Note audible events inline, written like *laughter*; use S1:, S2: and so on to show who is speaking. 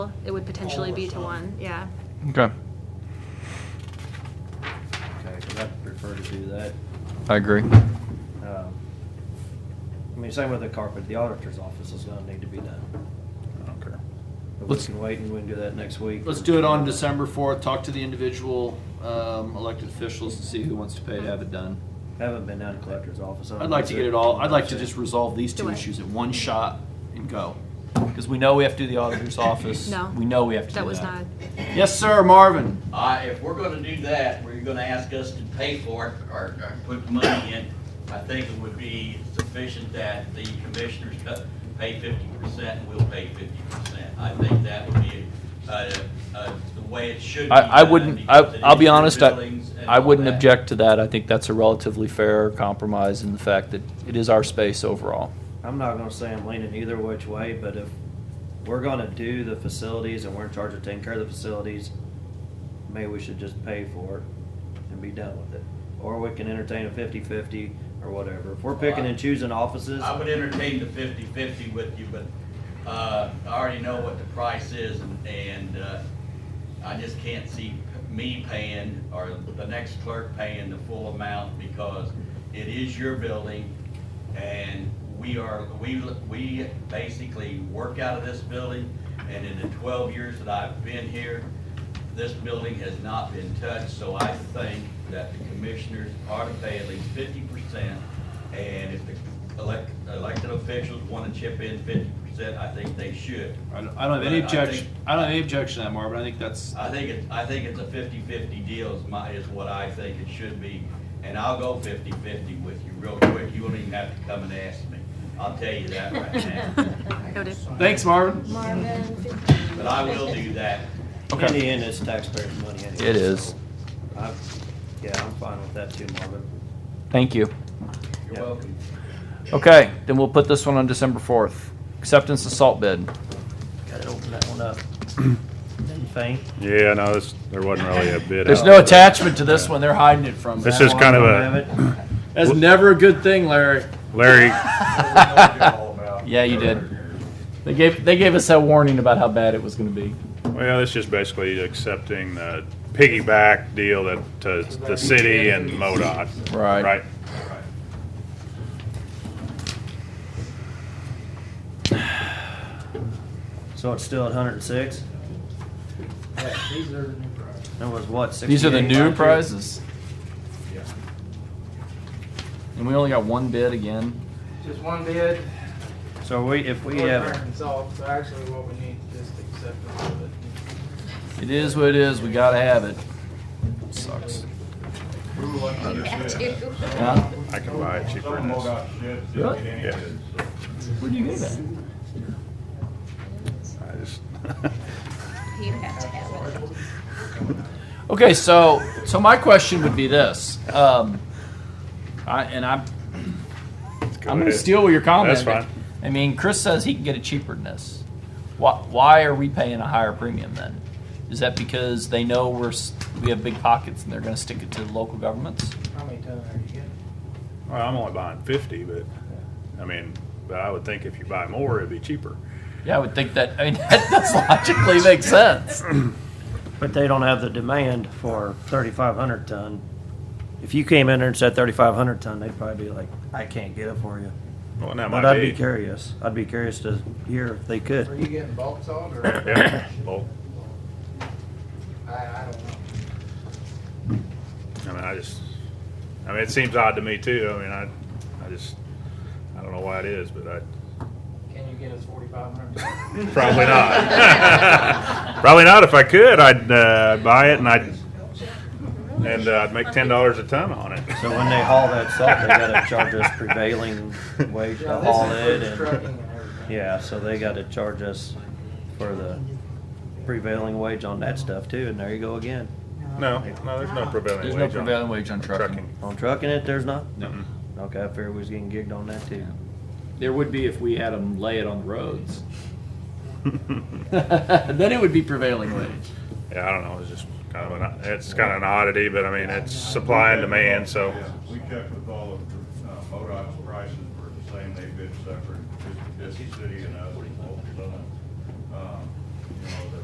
S1: it would potentially
S2: All or
S1: be to
S2: some.
S1: one, yeah.
S3: Okay,
S2: Okay, 'cause I'd prefer to do that.
S3: I agree.
S2: Um, I mean, same with the carpet, the auditor's office is gonna need to be done.
S4: I don't care.
S2: But we
S3: Let's-
S2: can wait and we can do that next week.
S4: Let's do it on December fourth, talk to the individual, um, elected officials and see who wants to pay to have it done.
S2: Haven't been down to collector's office. I don't
S4: I'd
S2: know
S4: like
S2: if
S4: to
S2: they're-
S4: get it all, I'd like to just resolve these
S1: Do
S4: two
S1: it.
S4: issues at one shot and go. Because we know we have to do the auditor's office.
S1: No.
S4: We know we have to do that.
S1: That was not,
S4: Yes, sir, Marvin.
S5: Uh, if we're gonna do that, where you're gonna ask us to pay for it or, or put money in, I think it would be sufficient that the commissioners cut, pay fifty percent and we'll pay fifty percent. I think that would be, uh, uh, the way it should be.
S3: I, I
S5: done
S3: wouldn't, I,
S5: because it
S3: I'll
S5: is
S3: be
S5: your
S3: honest, I,
S5: buildings and
S3: I
S5: all
S3: wouldn't
S5: that.
S3: object to that. I think that's a relatively fair compromise in the fact that it is our space overall.
S2: I'm not gonna say I'm leaning either which way, but if we're gonna do the facilities and we're in charge of taking care of the facilities, maybe we should just pay for it and be done with it. Or we can entertain a fifty-fifty or whatever. If we're picking and choosing offices,
S5: Oh, I would entertain the fifty-fifty with you, but, uh, I already know what the price is and, and, uh, I just can't see me paying or the next clerk paying the full amount because it is your building and we are, we, we basically work out of this building and in the twelve years that I've been here, this building has not been touched, so I think that the commissioners ought to pay at least fifty percent. And if the elect, elected officials wanna chip in fifty percent, I think they should.
S4: I don't I don't have any
S5: But I think-
S4: objection, I don't have any objection to that, Marvin. I think that's,
S5: I think it, I think it's a fifty-fifty deal is my, is what I think it should be. And I'll go fifty-fifty with you real quick. You won't even have to come and ask me. I'll tell you that right now.
S1: *laughs* noted.
S4: thanks, Marvin.
S6: Marvin.
S5: But I will do that.
S2: in
S4: Okay.
S2: the end, it's taxpayers' money anyway.
S3: It is.
S2: so I- Yeah, I'm fine with that too, Marvin.
S3: Thank you.
S2: Yep.
S5: You're welcome.
S3: Okay, then we'll put this one on December fourth. Acceptance of salt bid.
S2: Gotta open that
S4: *clears throat*
S2: one up. Didn't faint.
S7: Yeah, no, this, there wasn't really a bid.
S3: There's
S7: out,
S3: no
S7: but
S3: attachment to this one. They're hiding it from.
S7: This
S3: us.
S7: is kind of
S2: Have
S7: a,
S2: it.
S4: That's never a good thing, Larry.
S7: Larry,
S3: Yeah, you did. They gave, they gave us that warning about how bad it was gonna be.
S7: well, this is basically accepting the piggyback deal that, to the city and MoDOT.
S3: Right.
S7: Right?
S2: So it's still at hundred and six? That was what, sixty-eight?
S3: These are the new
S2: last year?
S3: prizes. And we only got one bid again.
S8: Just one bid.
S2: So we, if we
S8: North
S2: have,
S8: American salt, so actually what we need, just accept all of it.
S3: It is what it is. We gotta have it. Sucks. Yeah?
S7: I can buy it cheaper than this.
S3: Really?
S7: Yeah,
S3: Where'd you get that?
S7: I just, *laughs*
S6: You have to have it.
S3: Okay, so so my question would be this, um, I, and I'm
S7: Go
S3: I'm going to
S7: ahead.
S3: steal your comment.
S7: That's fine.
S3: I mean, Chris says he can get it cheaper than this. Why, why are we paying a higher premium then? Is that because they know we're s- we have big pockets and they're going to stick it to the local governments?
S8: How many ton are you getting?
S7: well, I'm only buying fifty, but, I mean, but I would think if you buy more, it'd be cheaper.
S3: Yeah, I would think that. I mean, *laughs* that does logically make sense.
S2: but they don't have the demand for thirty-five hundred ton. If you came in there and said thirty-five hundred ton, they'd probably be like, I can't get it for you.
S7: Well, that
S2: But I'd
S7: might
S2: be
S7: be.
S2: curious. I'd be curious to hear if they
S8: Are
S2: could.
S8: you getting bulk salt or,
S7: Yeah, well,
S8: I, I don't know.
S7: I mean, I just, I mean, it seems odd to me too. I mean, I, I just, I don't know why it is, but I,
S8: Can you get us forty-five hundred?
S7: Probably not. Probably not. If I could, I'd uh, buy it and I'd and uh, I'd make ten dollars a ton on it.
S2: So when they haul that salt, they gotta charge us prevailing wage to haul it and, yeah, so they gotta charge us for the prevailing wage on that stuff too, and there you go again.
S7: *laughs* No, no, there's no prevailing
S3: There's
S7: wage.
S3: no
S7: on-
S3: prevailing wage on trucking.
S2: On trucking it, there's not?
S4: No.
S2: Okay, I figured we was getting gigged on that too.
S4: There would be if we had them lay it on the
S3: *laughs*
S7: *laughs*
S4: roads. Then it would be prevailing wage.
S7: Yeah, I don't know. It's just kind of an it's kind of an oddity, but I mean it's supply and demand. So
S9: Yeah, We checked with all of um, uh, MoDOT's prices were the same, they bid separate, just just the city and us.